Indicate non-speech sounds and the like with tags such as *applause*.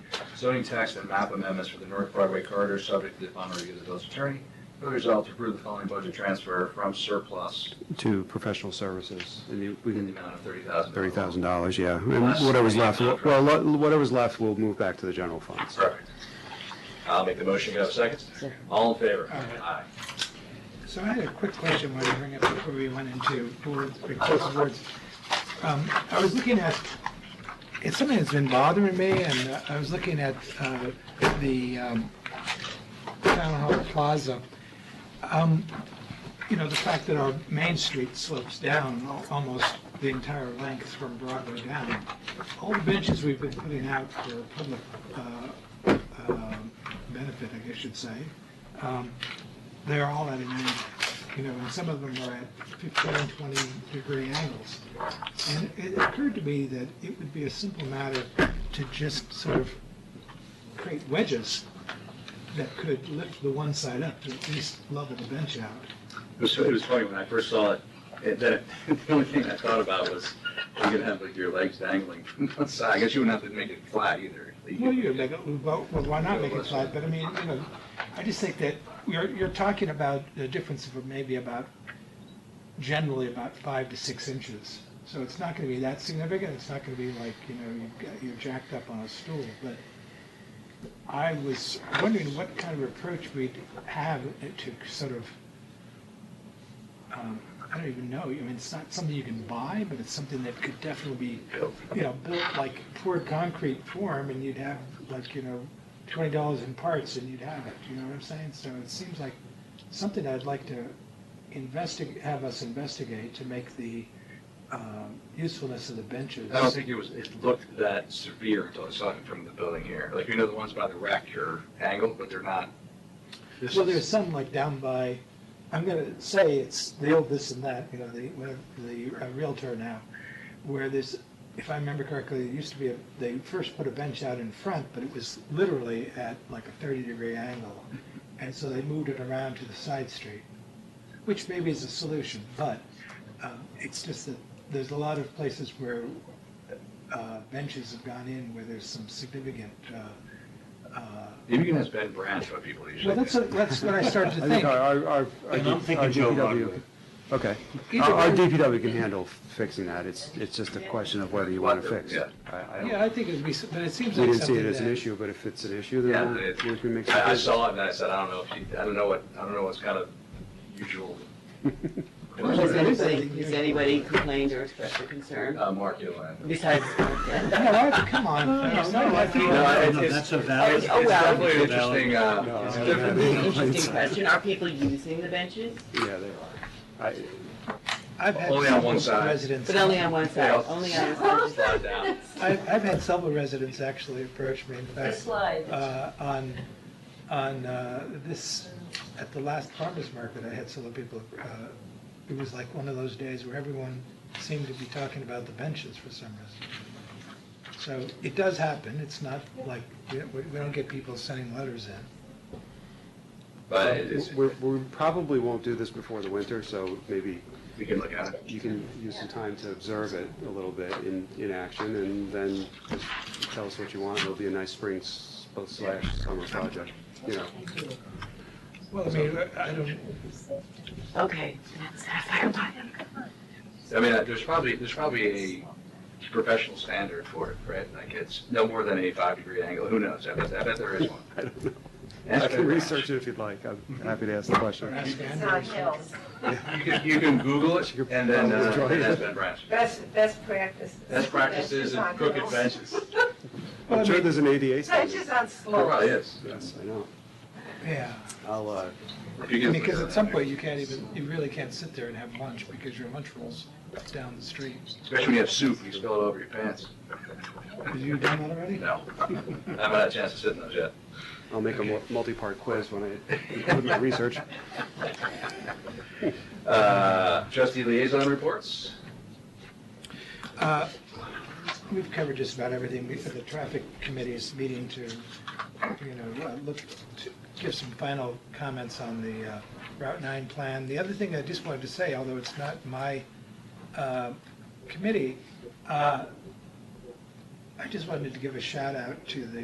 zoning tax and map amendments for the North Broadway corridor, subject to the final review of the village attorney. Be resolved to approve the following budget transfer from surplus to professional services. And you- we in the can, amount of thirty thousand. thirty thousand dollars, yeah. And whatever's left, well, lo- whatever's left will move back to the general fund. Perfect. I'll make the motion. Can I have a second? All in favor? Aye. So I had a quick question while you bring it before we went into board, excessive words. Um, I was looking at, it's something that's been bothering me, and uh, I was looking at, uh, the, um, Town Hall Plaza. Um, you know, the fact that our Main Street slopes down al- almost the entire length from Broadway down. All the benches we've been putting out for public, uh, um, benefit, I guess you'd say, um, they're all at an angle, you know, and some of them are at 15, 20 degree angles. And it occurred to me that it would be a simple matter to just sort of create wedges that could lift the one side up to at least level the bench out. It was, it was funny, when I first saw it, it, that, *laughs* the only thing I thought about was, you're gonna have like your legs dangling from one side. I guess you wouldn't have to make it flat either. Well, you make it, well, well, why not make it flat, but I mean, you know, I just think that you're, you're talking about a difference of maybe about, generally about five to six inches. So it's not gonna be that significant, it's not gonna be like, you know, you've got- you're jacked up on a stool, but I was wondering what kind of approach we'd have to sort of, um, I don't even know, I mean, it's not something you can buy, but it's something that could definitely be you know, built like poured concrete form and you'd have like, you know, twenty dollars in parts and you'd have it, you know what I'm saying? So it seems like something I'd like to investigate, have us investigate to make the, um, usefulness of the benches. I don't think it was, it looked that severe until I saw it from the building here. Like, you know, the ones by the rack are angled, but they're not. This Well, is- there's some like down by, I'm gonna say it's the old this and that, you know, the, whatever, the uh, Realtor now, where this, if I remember correctly, there used to be a, they first put a bench out in front, but it was literally at like a thirty degree angle. And so they moved it around to the side street, which maybe is a solution, but, um, it's just that there's a lot of places where, uh, benches have gone in where there's some significant, uh, uh, Maybe you can ask Ben Branch what people usually. well, that's, do. what- that's what I started *laughs* to I think think. our, our, our. our And I'm D- thinking our Joe DPW Rodway. Okay. Either Our our way. DPW can handle fixing that. It's, it's just a question of whether you want to fix it. I- I don't- Yeah, I think it'd be, s- but it seems We like didn't see something it as an that. issue, but if it's an issue, then Yeah, we'll- it- we can make some. I I saw it and I said, I don't know if you, I don't know what, I don't know what's kind of *laughs* usual. Has anybody, has anybody complained or expressed a concern Uh, Mark Yolanda. besides? No, I- come on. no, No, I think- No, it's- No, it's- that's a valid- It's Oh, it's well. definitely an interesting, No, uh, it's no, different. no. Interesting question. Are people using the benches? Yeah, they are. I- I've had Only on several one side. residents- But only on one side, Yeah. only on one side. Slide down. I've, I've had several residents actually approach me, in The fact, slide. uh, on, on uh, this, at the last farmer's market, I had several people, uh, it was like one of those days where everyone seemed to be talking about the benches for some reason. So it does happen, it's not like, we we- we don't get people sending letters in. But it is, We're, we probably won't do this before the winter, so maybe we can look at it. you can use some time to observe it a little bit in, in action, and then just tell us what you want. It'll be a nice spring s- slash summer project, you know. Well, I mean, I don't, Okay, that's sapphire bottom. I mean, uh, there's probably, there's probably a professional standard for it, right? Like it's no more than a five degree angle. Who knows? I bet, I bet there is one. *laughs* I don't know. Ask I can Ben Branch. research it if you'd like. I'm happy to ask the question. ask It's Andrew. on hills. You can, you can Google it and then, uh, and ask Ben Branch. Best, best practices. Best practices and on crooked hills. *laughs* benches. I'm sure there's an ADA standard. Benches on There probably slopes. is. Yes, I know. Yeah, I'll, uh, because at some point you can't even, you really can't sit there and have lunch because your lunch rolls down the street. *laughs* Especially when you have soup, and you spill it over your pants. Have you done that already? No, I haven't had a chance to sit in those yet. I'll make a mu- multi-part quiz when I do my research. *laughs* Uh, Trustee liaison reports? Uh, We've covered just about everything. We- The traffic committee is meeting to, you know, uh, look, to give some final comments on the uh, Route 9 plan. The other thing I just wanted to say, although it's not my uh, committee, uh, I just wanted to give a shout out to the